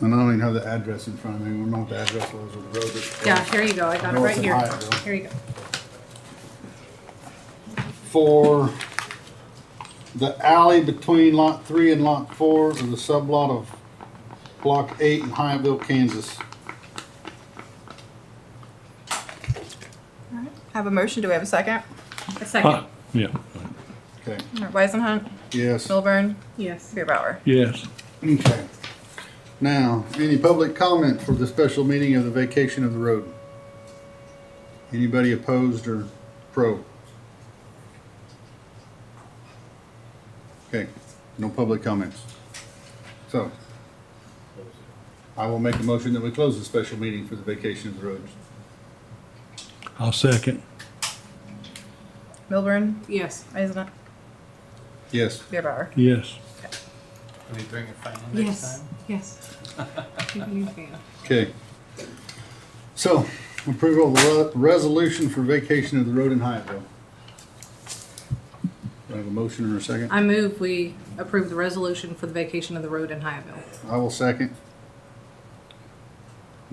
And I don't even have the address in front of me, we don't know what the address was of the road. that- Yeah, here you go, I got it No, right it's in here. Hyattville. Here you go. For the alley between lot three and lot four is a sublot of block eight in Hyattville, Kansas. Have a motion, do we have a second? A second, Ah, Yeah, Okay, Weisenhunt, yes. Milburn, yes. Beerbauer. yes. Okay. Now, any public comment for the special meeting of the vacation of the road? Anybody opposed or pro? Okay, no public comments. So, I will make a motion that we close the special meeting for the vacation of the roads. I'll second. Milburn, Yes. Weisenhunt, Yes, Beerbauer. Yes. Can we bring a fan next Yes, time? yes. Give me a fan. okay. So, approval of the re- resolution for vacation of the road in Hyattville. Do I have a motion or a second? I move we approve the resolution for the vacation of the road in Hyattville. I will second.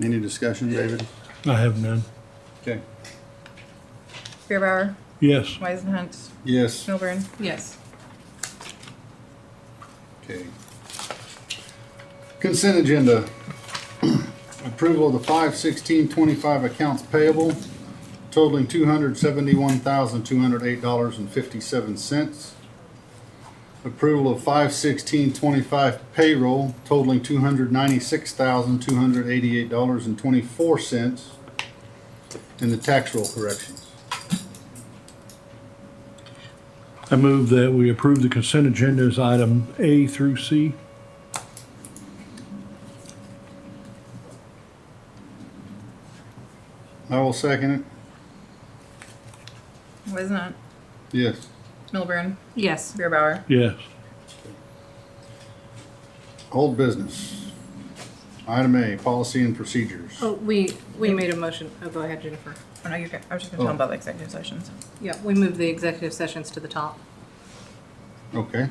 Any discussion, David? I have none. Okay. Beerbauer, Yes. Weisenhunt, Yes. Milburn, Yes. Okay. Consent agenda. Approval of the five sixteen twenty-five accounts payable totaling two hundred seventy-one thousand, two hundred eight dollars and fifty-seven cents. Approval of five sixteen twenty-five payroll totaling two hundred ninety-six thousand, two hundred eighty-eight dollars and twenty-four cents. And the tax roll corrections. I move that we approve the consent agenda as item A through C. I will second it. Weisenhunt, Yes. Milburn, Yes. Beerbauer. Yes. Old business. Item A, policy and procedures. Oh, we, we made a motion. Oh, go ahead, Jennifer. Oh, no, you're good. I was just gonna tell them about the executive sessions. Yeah, we moved the executive sessions to the top. Okay.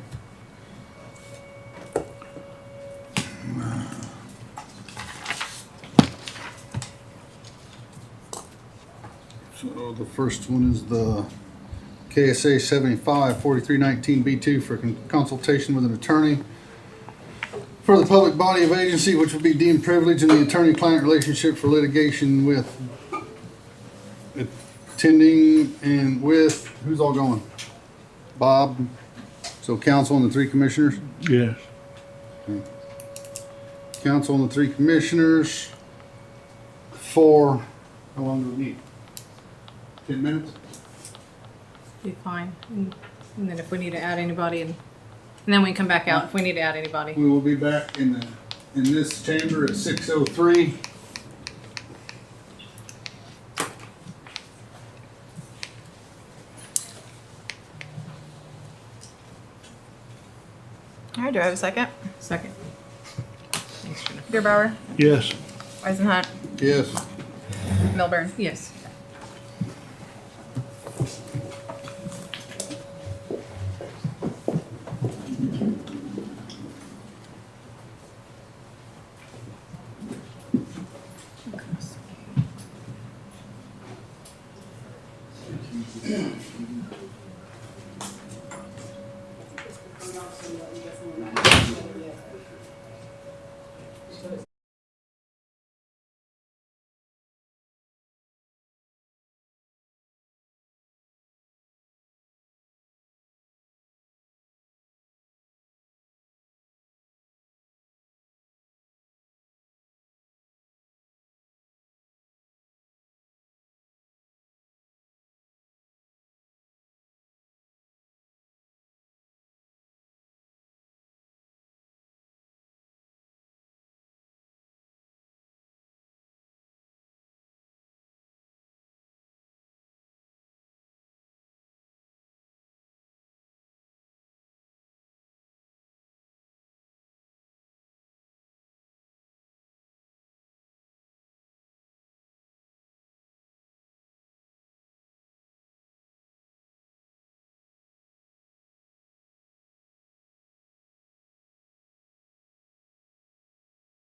So the first one is the KSA seventy-five forty-three nineteen B two for con- consultation with an attorney for the public body of agency which would be deemed privileged in the attorney-client relationship for litigation with attending and with, who's all going? Bob, so council and the three commissioners? Yes. Council and the three commissioners for, how long do we need? Ten minutes? Be fine. And and then if we need to add anybody and, and then we come back out if we need to add anybody. We will be back in the, in this chamber at six oh three. All right, do I have a second? Second. Thanks, Jennifer. Beerbauer, Yes. Weisenhunt, Yes, Milburn. Yes.